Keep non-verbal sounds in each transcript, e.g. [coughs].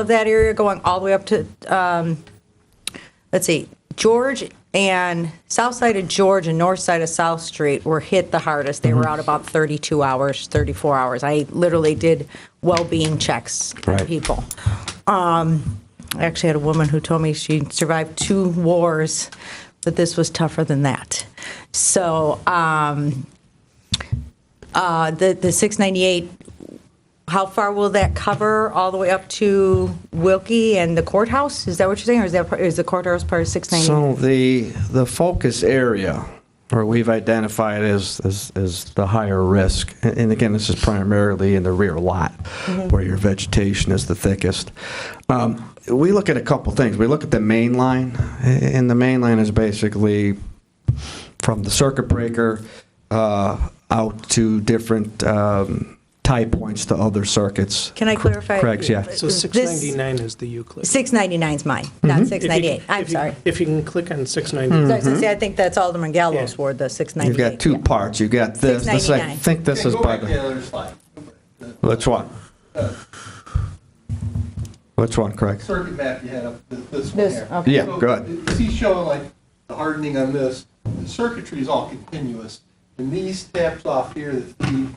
of that area going all the way up to, um, let's see, George and south side of George and north side of South Street were hit the hardest. They were out about 32 hours, 34 hours. I literally did well-being checks for Right. people. Um, I actually had a woman who told me she survived two wars, but this was tougher than that. So um, uh, the the 698 how far will that cover all the way up to Wilkie and the courthouse? Is that what you're saying, or is that part- is the courthouse part of 690? So the, the focus area, or we've identified as, as, as the higher risk, and and again, this is primarily in the rear lot, where your vegetation is the thickest. Um, We look at a couple things. We look at the main line, a- and the main line is basically from the circuit breaker uh, out to different um, tie points to other circuits. Can I clarify? Craig's, yeah. So This- 699 is the Euclid. 699 is mine, Mm-hmm. not If you- 698. I'm if you- sorry. If you can click on So I 699, was gonna say, I think that's Alderman Gallo's Yeah. ward, the 698. You've got two yeah. parts. You've got this, this, I 699. think this is Go by back to the the, other slide. which one? Which one, Craig? Circuit map you had up, th- this one This, here. okay. Yeah, So go ahead. you See showing like the hardening on this, the circuitry is all continuous. And these taps off here that feed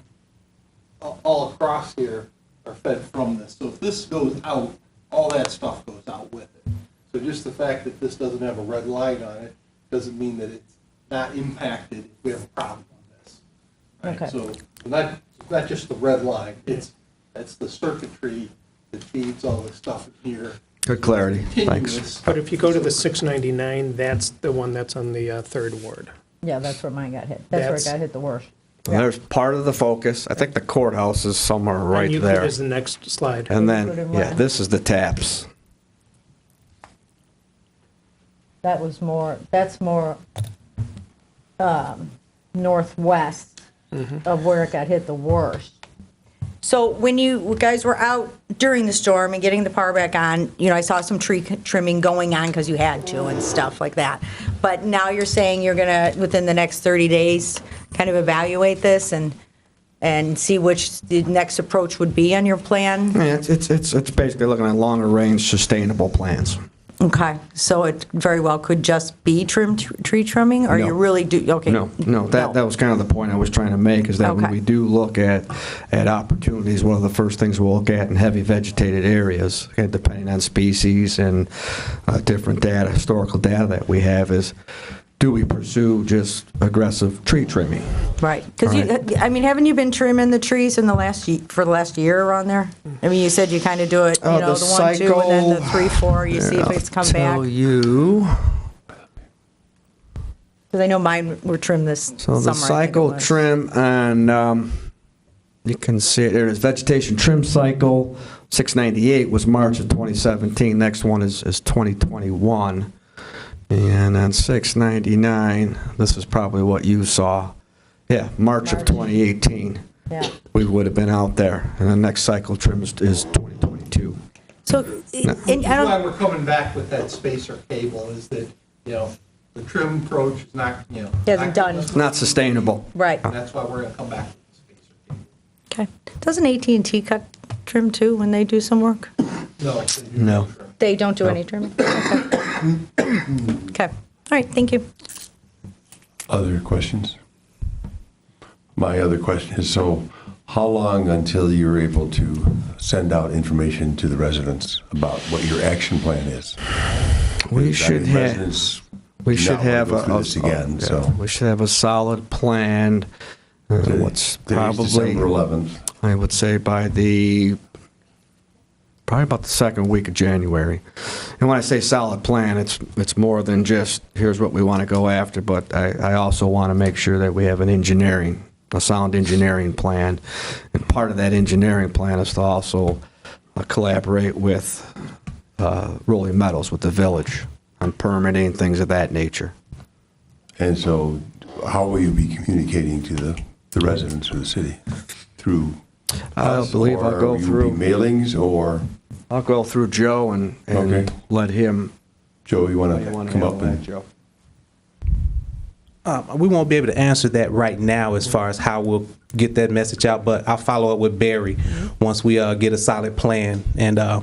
a- all across here are fed from this. So if this goes out, all that stuff goes out with it. So just the fact that this doesn't have a red light on it doesn't mean that it's not impacted if we have a problem on this. Right, Okay. So not, not just the red line, it's, it's the circuitry that feeds all this stuff in here. Good clarity. Thanks. Continuous. but if you go to the 699, that's the one that's on the uh, third ward. Yeah, that's where mine got hit. That's where it That's- got hit the worst. There's part of the focus. I think the courthouse is somewhere And right Euclid there. is the next slide. And Put then, in yeah, red. this is the taps. That was more, that's more um, northwest of where it got hit the worst. So when you guys were out during the storm and getting the power back on, you know, I saw some tree trimming going on because you had to and stuff like that. But now you're saying you're gonna, within the next 30 days, kind of evaluate this and, and see which the next approach would be on your plan? Yeah, It's, it's, it's it's basically looking at longer-range sustainable plans. Okay, so it very well could just be trim, tree trimming, or No. you really do, okay? No, no, that, that was kind of the point I was trying to make, is that when Okay. we do look at, at opportunities, one of the first things we'll look at in heavy vegetated areas, okay, depending on species and uh, different data, historical data that we have, is do we pursue just aggressive tree trimming? Right, because you, uh, Right. I mean, haven't you been trimming the trees in the last, ye- for the last year around there? I mean, you said you kind of do it, you Uh, know, the the one, two, and then the cycle- three, four, you see if it's come back. Tell you, Because I know mine were trimmed this summer. so the I think it cycle was. trim and, um, you can see, it. there is vegetation trim cycle, 698 was March of 2017, next one is, is 2021. And on 699, this is probably what you saw, yeah, March of March. 2018, Yeah. we would have been out there. And the next cycle trim is, is 2022. So, and I That's why don't, we're coming back with that spacer cable, is that, you know, the trim approach is not, you know. Hasn't done. It's not sustainable. right, And that's why we're going to come back with the spacer cable. okay. Doesn't at and T cut trim too when they do some work? No. it's a new No. trim. They don't do any trimming? [coughs] Okay. [coughs] Okay, all right, thank you. Other questions? My other question is, so how long until you're able to send out information to the residents about what your action plan is? We Because, I should mean, have- residents We do should not wanna have go a, through a- this a- again, yeah, so. we should have a solid plan. uh, What's Today's probably, December 11th. I would say by the, probably about the second week of January. And when I say solid plan, it's, it's more than just, here's what we want to go after, but I, I also want to make sure that we have an engineering, a sound engineering plan. And part of that engineering plan is to also uh, collaborate with uh, Rolling Meadows, with the village, on permitting, things of that nature. And so how will you be communicating to the, the residents of the city? Through? I us, believe I'll or go will you be through- Mailings or, I'll go through Joe and, and Okay. let him, Joe, you want you to want to come handle up that, and? Joe. Um, we won't be able to answer that right now as far as how we'll get that message out, but I'll follow up with Barry once we uh, get a solid plan and uh,